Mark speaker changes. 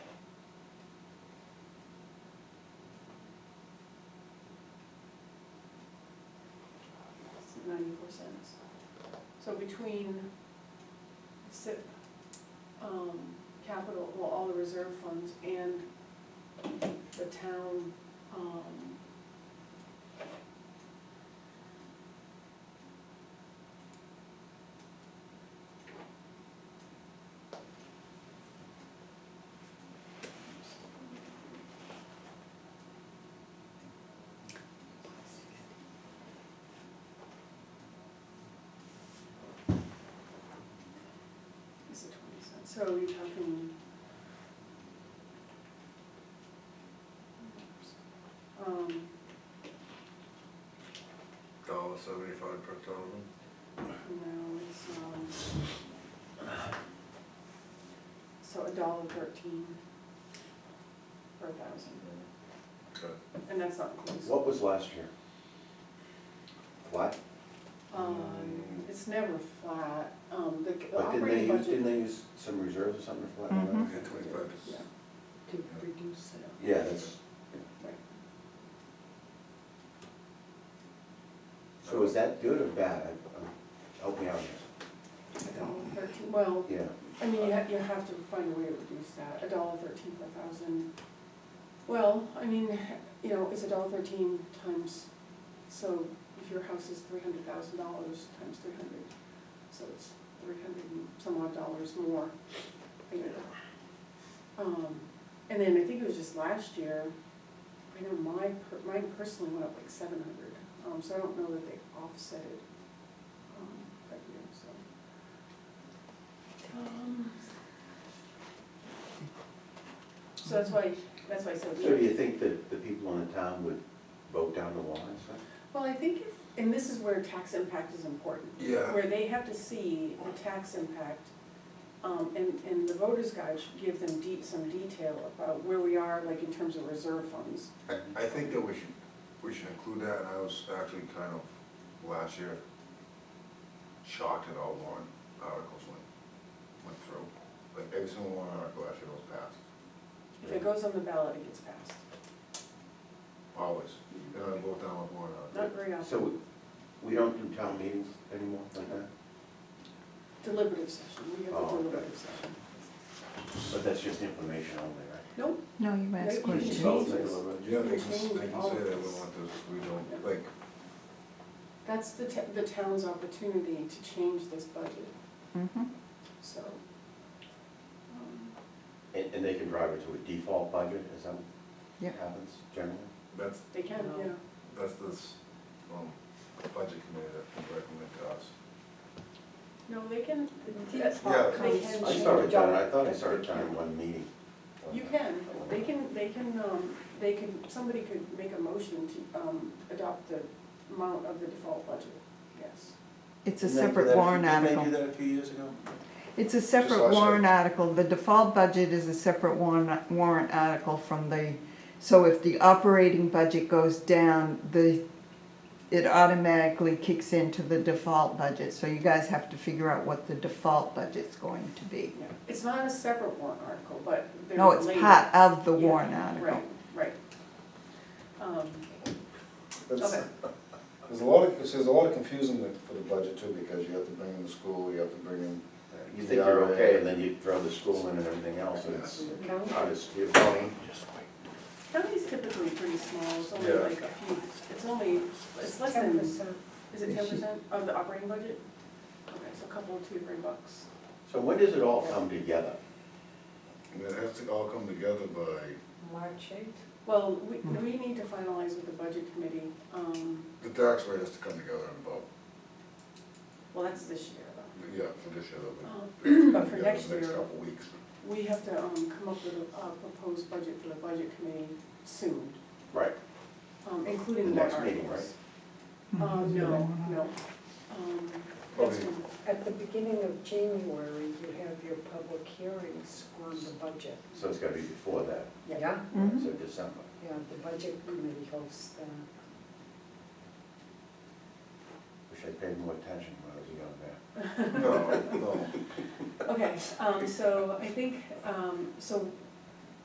Speaker 1: cents. So between, si- um, capital, well, all the reserve funds and the town, um, Is it twenty cents? So you're talking. Um,
Speaker 2: Dollar seventy-five per thousand?
Speaker 1: no, it's, um. So a dollar thirteen per thousand,
Speaker 2: Okay.
Speaker 1: and that's not inclusive.
Speaker 3: What was last year? What?
Speaker 1: Um, it's never flat, um, the the
Speaker 3: But didn't they
Speaker 1: operating
Speaker 3: use,
Speaker 1: budget.
Speaker 3: didn't they use some reserves or something for that?
Speaker 2: Yeah, twenty-five.
Speaker 1: Yeah,
Speaker 4: to reduce it.
Speaker 3: Yeah, that's,
Speaker 1: right.
Speaker 3: so is that good or bad? I- I'm- Help me out here.
Speaker 1: A dollar thirteen, well,
Speaker 3: Yeah,
Speaker 1: I mean, you have, you have to find a way to reduce that, a dollar thirteen per thousand. Well, I mean, you know, it's a dollar thirteen times, so if your house is three hundred thousand dollars times three hundred, so it's three hundred and some odd dollars more a year. Um, and then I think it was just last year, I know my, per- mine personally went up like seven hundred, um, so I don't know that they offset it, um, that year, so. Um, So that's why, that's why I said. we-
Speaker 3: so do you think that the people in the town would vote down the law and stuff?
Speaker 1: Well, I think, if and this is where tax impact is important.
Speaker 2: Yeah.
Speaker 1: Where they have to see the tax impact, um, and, and the voter's guide should give them de some detail about where we are, like in terms of reserve funds.
Speaker 2: I, I think that we should, we should include that, and I was actually kind of, last year, shocked at all warrant articles went, went through. Like, every single warrant article last year was passed,
Speaker 1: If it goes on the ballot, it gets passed.
Speaker 2: always. They don't vote down a warrant
Speaker 1: Not
Speaker 2: article.
Speaker 1: very often.
Speaker 3: So we- we don't do town meetings anymore like that?
Speaker 1: Deliberative session, we have a
Speaker 3: Oh, okay.
Speaker 1: deliberative session.
Speaker 3: But that's just information only, right?
Speaker 1: Nope,
Speaker 4: No, you
Speaker 1: They- you can
Speaker 4: asked questions.
Speaker 1: change
Speaker 3: Vote,
Speaker 1: this.
Speaker 2: Yeah, they can,
Speaker 1: Change
Speaker 2: they can
Speaker 1: all
Speaker 2: say
Speaker 1: of
Speaker 2: they
Speaker 1: this.
Speaker 2: don't want this, we don't, like,
Speaker 1: That's the, ta- the town's opportunity to change this budget,
Speaker 4: Mhm.
Speaker 1: so. um,
Speaker 3: And, and they can drive it to a default budget, as that
Speaker 4: Yep.
Speaker 3: happens generally?
Speaker 2: that's,
Speaker 1: They can,
Speaker 4: No.
Speaker 1: yeah.
Speaker 2: that's this, um, budget committee that can recommend to us.
Speaker 1: No, they can,
Speaker 4: Yeah.
Speaker 1: they can
Speaker 4: I
Speaker 1: change.
Speaker 3: I
Speaker 4: Change
Speaker 3: started
Speaker 4: the
Speaker 3: down,
Speaker 4: dollar.
Speaker 3: I thought I started down in one meeting.
Speaker 1: You can, they can, they can, um, they can, somebody could make a motion to, um, adopt the amount of the default budget, yes.
Speaker 4: It's
Speaker 3: Didn't they do
Speaker 4: a
Speaker 3: that
Speaker 4: separate
Speaker 3: a
Speaker 4: warrant
Speaker 3: few- didn't
Speaker 4: article.
Speaker 3: they do that a few years ago?
Speaker 4: It's a
Speaker 2: Just last
Speaker 4: separate
Speaker 2: year.
Speaker 4: warrant article. The default budget is a separate warrant, warrant article from the, so if the operating budget goes down, the, it automatically kicks into the default budget. So you guys have to figure out what the default budget's going to be.
Speaker 1: Yeah. It's not a separate warrant article, but they're
Speaker 4: No, it's
Speaker 1: related.
Speaker 4: part of the
Speaker 1: Yeah,
Speaker 4: warrant article.
Speaker 1: Right, right. Um,
Speaker 5: That's-
Speaker 1: Okay.
Speaker 5: There's a lot of, there's a lot of confusion with- for the budget too, because you have to bring in the school, you have to bring in.
Speaker 3: You think you're okay, and then you throw the school in and everything else, and it's
Speaker 1: county-
Speaker 3: out of skew.
Speaker 1: County's typically pretty small, it's only
Speaker 2: Yeah.
Speaker 1: like a few, it's only, it's less than, is it ten percent of the operating budget? Okay, so a couple, two, three bucks.
Speaker 3: So when does it all come together?
Speaker 2: And it has to all come together by,
Speaker 6: March eighth?
Speaker 1: Well, we, we need to finalize with the budget committee, um,
Speaker 2: the tax rate has to come together in about,
Speaker 1: well, that's this year though.
Speaker 2: yeah, for this year,
Speaker 1: Um,
Speaker 2: it'll be.
Speaker 1: but for
Speaker 2: together
Speaker 1: next
Speaker 2: the Next
Speaker 1: year-
Speaker 2: couple weeks.
Speaker 1: We have to, um, come up with a, a proposed budget for the budget committee soon,
Speaker 3: Right,
Speaker 1: um, including the
Speaker 3: The
Speaker 1: warrant
Speaker 3: next meeting,
Speaker 1: articles.
Speaker 4: Mhm.
Speaker 1: Um, no, no, um, that's
Speaker 2: Probably.
Speaker 1: when-
Speaker 6: At the beginning of January, you have your public hearings on the budget.
Speaker 3: so it's gotta be before that,
Speaker 6: Yeah,
Speaker 4: Mhm.
Speaker 3: so December.
Speaker 6: yeah, the budget committee hosts that.
Speaker 3: Wish I paid more attention when I was a young man.
Speaker 2: No, no.
Speaker 1: Okay, um, so I think, um, so